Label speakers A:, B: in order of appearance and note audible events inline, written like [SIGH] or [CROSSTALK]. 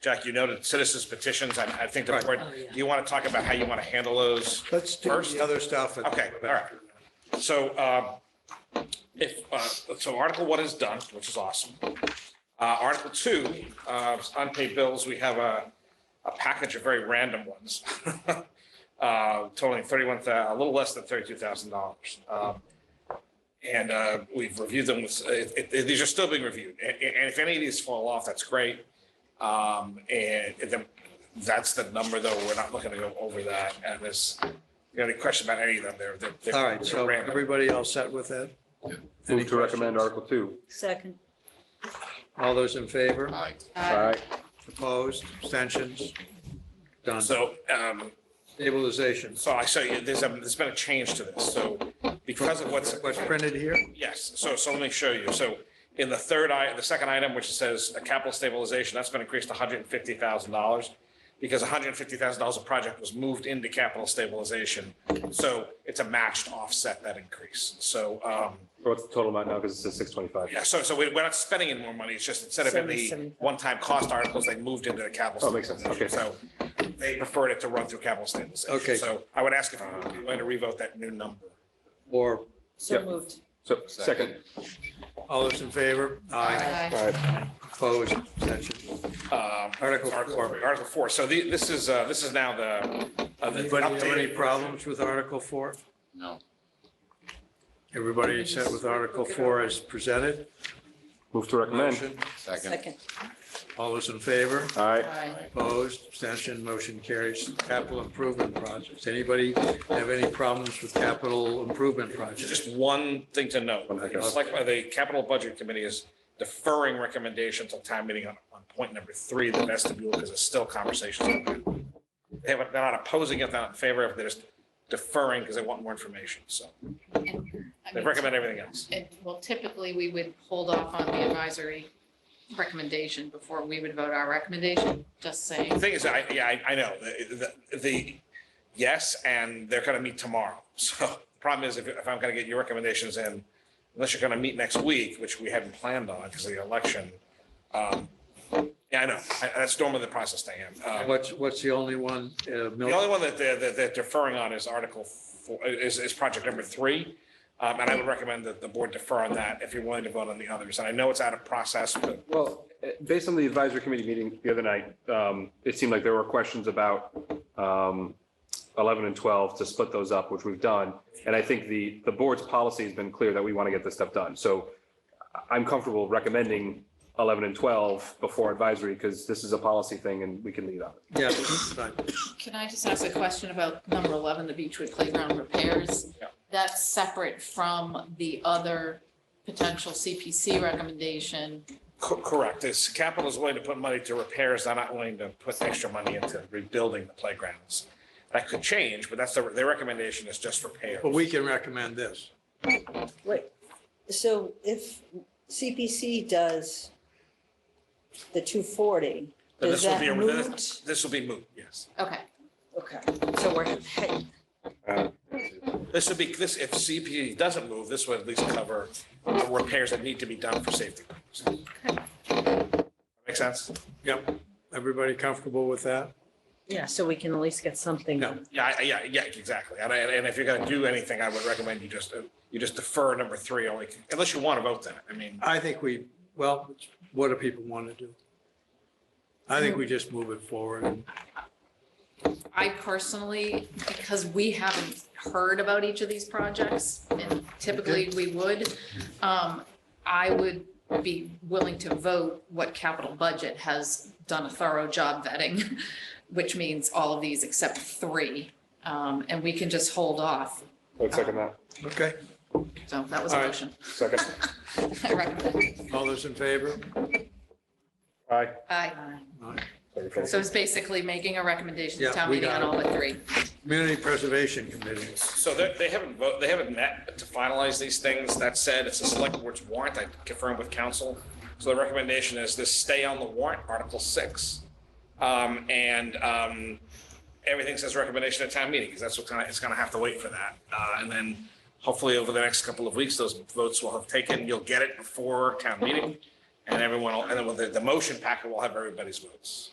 A: Jack, you noted citizens petitions. I, I think the
B: Right.
A: board,
C: Oh, yeah.
A: do you want to talk about how you want to handle those?
B: Let's do
A: First?
B: the other stuff. and-
A: Okay, all right. So, um, if, uh, so Article One is done, which is awesome. Uh, Article Two, uh, unpaid bills, we have a, a package of very random ones. [LAUGHS] Uh, totaling thirty-one, a little less than thirty-two thousand dollars. Um, and, uh, we've reviewed them with, it, it, these are still being reviewed. And, and if any of these fall off, that's great. Um, and then, that's the number though, we're not looking to go over that. And this, you got any question about any of them? They're, they're. they're-
B: All right, so
A: they're random.
B: everybody all set with that?
D: Move to recommend Article Two.
C: Second.
B: All those in favor,
E: Aye.
D: Aye.
B: opposed, abstentions? Done.
A: So, um,
B: Stabilization,
A: so I show you, there's a, there's been a change to this. So because of what's,
B: what's printed here?
A: yes, so, so let me show you. So in the third i, the second item, which says a capital stabilization, that's been increased to hundred and fifty thousand dollars. Because hundred and fifty thousand dollars a project was moved into capital stabilization. So it's a matched offset that increase. So, um,
D: What's the total amount now? Because it says six twenty-five.
A: Yeah, so, so we- we're not spending any more money. It's just instead of in the
C: Seventy-seven.
A: one-time cost articles, they moved into the capital.
D: Oh, makes sense. Okay.
A: So they preferred it to run through capital stabilization.
B: Okay.
A: So I would ask if you want to revote that new number.
B: Or,
C: So
D: Yep.
C: moved.
D: So second.
B: all those in favor? Aye. Opposed, abstentions?
A: Um,
B: Article
A: Article
B: four.
A: Article four. So the, this is, uh, this is now the. uh, the
B: Anybody have any
A: updated-
B: problems with Article Four?
E: No.
B: Everybody set with Article Four as presented?
D: Move to recommend.
B: Motion?
E: Second.
C: Second.
B: All those in favor?
D: Aye.
B: Opposed, abstention, motion carries. Capital improvement projects. Anybody have any problems with capital improvement projects?
A: Just one thing to note.
D: One thing.
A: It's like why the capital budget committee is deferring recommendations on time meeting on, on point number three, the vestibule, because it's still conversations. They haven't, they're not opposing it, they're not in favor of, it, they're just deferring because they want more information. So
F: I
A: they
F: mean,
A: recommend everything else.
F: and- Well, typically, we would hold off on the advisory recommendation before we would vote our recommendation, just
A: The
F: saying.
A: thing is, I, yeah, I, I know, the, the- the, yes, and they're gonna meet tomorrow. [LAUGHS] So the problem is, if, if I'm gonna get your recommendations in, unless you're gonna meet next week, which we hadn't planned on because of the election. um, Yeah, I know, I- that's normally the process they have. Um,
B: Uh, What's, what's the only one? uh,
A: The only
B: Milton?
A: one that they're, that they're deferring on is Article, four- is, is project number three. Um, And I would recommend that the board defer on that if you're willing to vote on the others. And I know it's out of process, but
D: Well, eh, based on the advisory committee meeting the other night, um, it seemed like there were questions about um, eleven and twelve to split those up, which we've done. And I think the, the board's policy has been clear that we want to get this stuff done. So I- I'm comfortable recommending eleven and twelve before advisory because this is a policy thing and we can lead on it.
B: Yeah, fine.
F: Can I just ask a question about number 11, the Beechwood Playground repairs?
A: Yeah.
F: That's separate from the other potential CPC recommendation.
A: Co- Correct. This capital is willing to put money to repairs. They're not willing to put extra money into rebuilding the playgrounds. That could change, but that's the, their recommendation is just repairs.
B: Well, we can recommend this.
C: Wait, so if CPC does the two forty,
A: Then
C: does
A: this will
C: that
A: be a-
C: moot?
A: This will be moot, yes.
F: Okay,
C: Okay, so we're, hey,
A: This would be, this, if CPE doesn't move, this would at least cover the repairs that need to be done for safety. purposes. Make sense?
B: Yep. Everybody comfortable with that?
G: Yeah, so we can at least get something.
B: No.
A: Yeah, I- I- yeah, yeah, exactly. And I, and if you're gonna do anything, I would recommend you just, uh, you just defer number three only, unless you want to vote that. I mean,
B: I think we, well, what do people want to do? I think we just move it forward and
F: I personally, because we haven't heard about each of these projects, and typically we would, um, I would be willing to vote what capital budget has done a thorough job vetting, [LAUGHS] which means all of these except three, um, and we can just hold off.
D: I'd second that.
B: Okay,
F: So that was a
B: All right.
F: motion. [LAUGHS]
D: Second.
F: I recommend.
B: all those in favor?
D: Aye.
F: Aye.
B: Aye.
F: So it's basically making a recommendation
B: Yeah,
F: to town
B: we
F: meeting
B: got
F: on all but three.
B: Community Preservation Committee.
A: So they, they haven't vote, they haven't met to finalize these things. That said, it's a select board's warrant. I confirmed with council. So the recommendation is this stay on the warrant, Article six. Um, and, um, everything says recommendation at town meeting, because that's what kind of, it's gonna have to wait for that. Uh, and then hopefully over the next couple of weeks, those votes will have taken, you'll get it before town meeting. And everyone, will- and then with the, the motion packet will have everybody's votes.